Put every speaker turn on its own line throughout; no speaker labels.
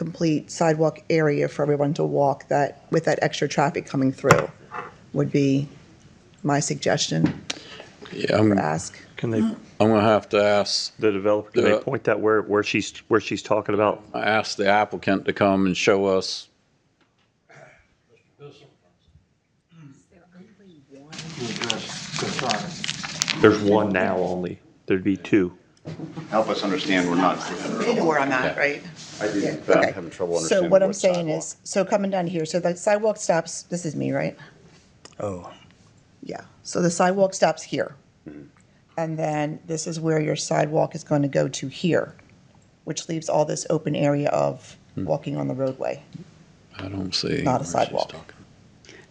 complete sidewalk area for everyone to walk that, with that extra traffic coming through, would be my suggestion
Yeah, I'm,
or
I'm
ask.
Can they,
gonna have to ask,
the developer, can
Yeah.
they point that where, where she's, where she's talking about?
ask the applicant to come and show us.
There's one now only. There'd be two.
Help us understand, we're not.
You know where I'm at, right?
I did,
Okay.
I'm having trouble
So
understanding.
what I'm saying is, so coming down here, so the sidewalk stops, this is me, right?
Oh,
Yeah, so the sidewalk stops here.
Mm-hmm.
And then this is where your sidewalk is going to go to here, which leaves all this open area of
Hmm.
walking on the roadway.
I don't see.
Not a
where she's
sidewalk.
talking.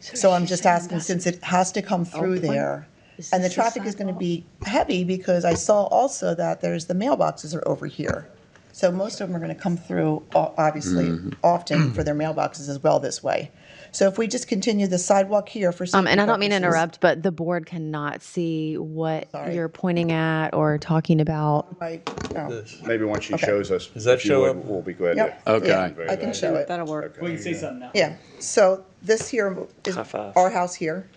So I'm
she's
just
saying
asking,
that's
since it has to come through
open.
there,
Is
and the
this a
traffic is going to
sidewalk?
be heavy because I saw also that there's, the mailboxes are over here. So most of them are going to come through, o- obviously, often for their mailboxes as well this way. So if we just continue the sidewalk here for
Um, and
safety
I don't mean to
purposes-
interrupt, but the board cannot see what
Sorry.
you're pointing at or talking about.
Right, oh,
Maybe once she
Okay.
shows us.
Does that
if you
show
would,
up?
We'll be glad to.
Yep.
Okay.
yeah, I can show it.
That'll work.
Okay.
We can say something now.
Yeah, so this here is
High five.
our house here.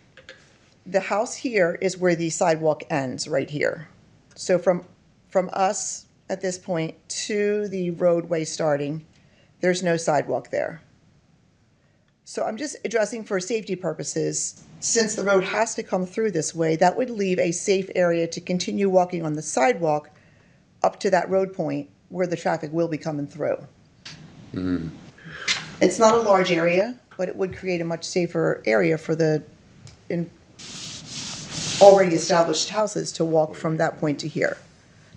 The house here is where the sidewalk ends, right here. So from, from us at this point to the roadway starting, there's no sidewalk there. So I'm just addressing for safety purposes, since the road has to come through this way, that would leave a safe area to continue walking on the sidewalk up to that road point where the traffic will be coming through. It's not a large area, but it would create a much safer area for the in already established houses to walk from that point to here.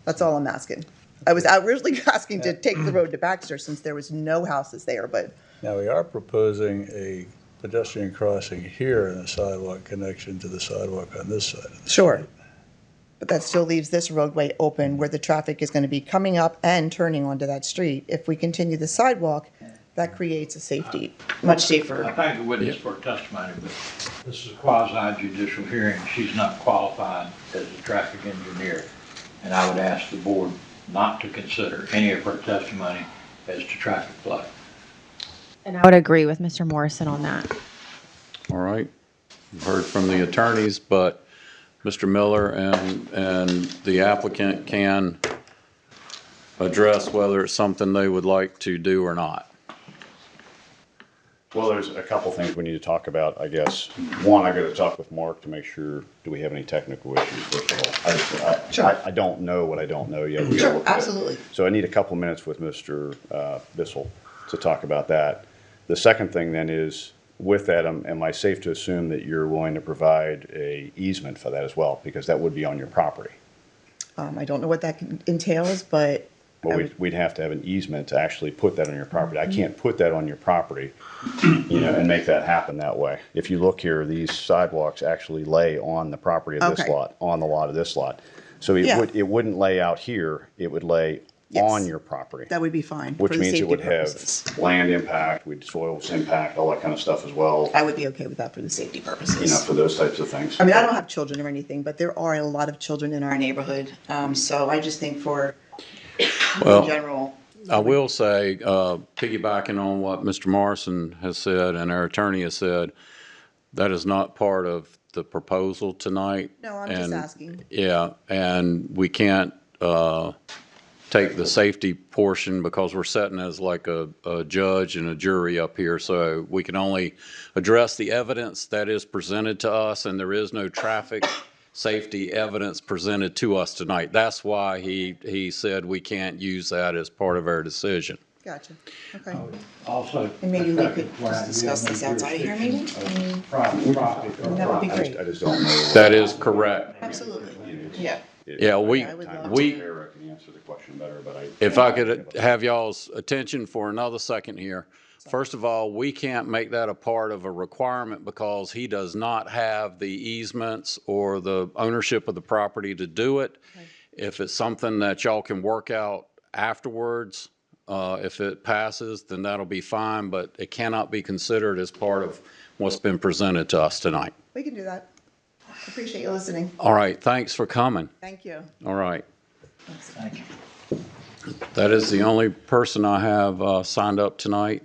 That's all I'm asking. I was originally asking to take the road to Baxter since there was no houses there, but
now we are proposing a pedestrian crossing here and a sidewalk connection to the sidewalk on this side.
sure. But that still leaves this roadway open where the traffic is going to be coming up and turning onto that street. If we continue the sidewalk, that creates a safety, much safer.
I thank the witness for her testimony, but this is a quasi judicial hearing. She's not qualified as a traffic engineer. And I would ask the board not to consider any of her testimony as to traffic flow.
And I would agree with Mr. Morrison on that.
All right. We've Heard from the attorneys, but Mr. Miller and, and the applicant can address whether it's something they would like to do or not.
Well, there's a couple things we need to talk about, I guess. One, I gotta talk with Mark to make sure, do we have any technical issues, first of all? I- I-
Sure.
I, I don't know what I don't know yet. We gotta
Sure,
look at it.
absolutely.
So I need a couple minutes with Mr. uh, Bissell to talk about that. The second thing then is, with that, am am I safe to assume that you're willing to provide a easement for that as well? Because that would be on your property.
Um, I don't know what that entails, but
Well, we'd, we'd have to have an easement to actually put that on your property.
Mm-hmm.
I can't put that on your property, you know, and make that happen that way. If you look here, these sidewalks actually lay on the property of this
Okay.
lot, on the lot of this lot. So it
Yeah.
would, it wouldn't lay out here, it would lay on
Yes.
your property.
that would be fine. for
Which
the
means
safety
it would
purposes.
have land impact, we'd soils impact, all that kind of stuff as well,
I would be okay with that for the safety
you know,
purposes.
for those types of things.
I mean, I don't have children or anything, but there are a lot of children in our neighborhood. Um, so I just think for in
Well,
general,
I will say, uh, piggybacking on what Mr. Morrison has said and our attorney has said, that is not part of the proposal tonight.
no, I'm just
and-
asking.
Yeah, and we can't uh, take the safety portion because we're sitting as like a a judge and a jury up here. So we can only address the evidence that is presented to us, and there is no traffic safety evidence presented to us tonight. That's why he, he said we can't use that as part of our decision.
Gotcha. Okay.
Also.
And maybe we could
where
just
I
discuss
have no
this outside here, maybe?
jurisdiction
I
of
mean,
Private property. or
That would be
private-
great.
I just don't know.
That is correct.
Absolutely. Yeah.
Yeah, we,
I would love to.
we,
Eric can answer the question better, but I.
If I could have y'all's attention for another second here. First of all, we can't make that a part of a requirement because he does not have the easements or the ownership of the property to do it. If it's something that y'all can work out afterwards, uh, if it passes, then that'll be fine, but it cannot be considered as part of what's been presented to us tonight.
We can do that. Appreciate you listening.
All right, thanks for coming.
Thank you.
All right.
Thank you.
That is the only person I have uh, signed up tonight.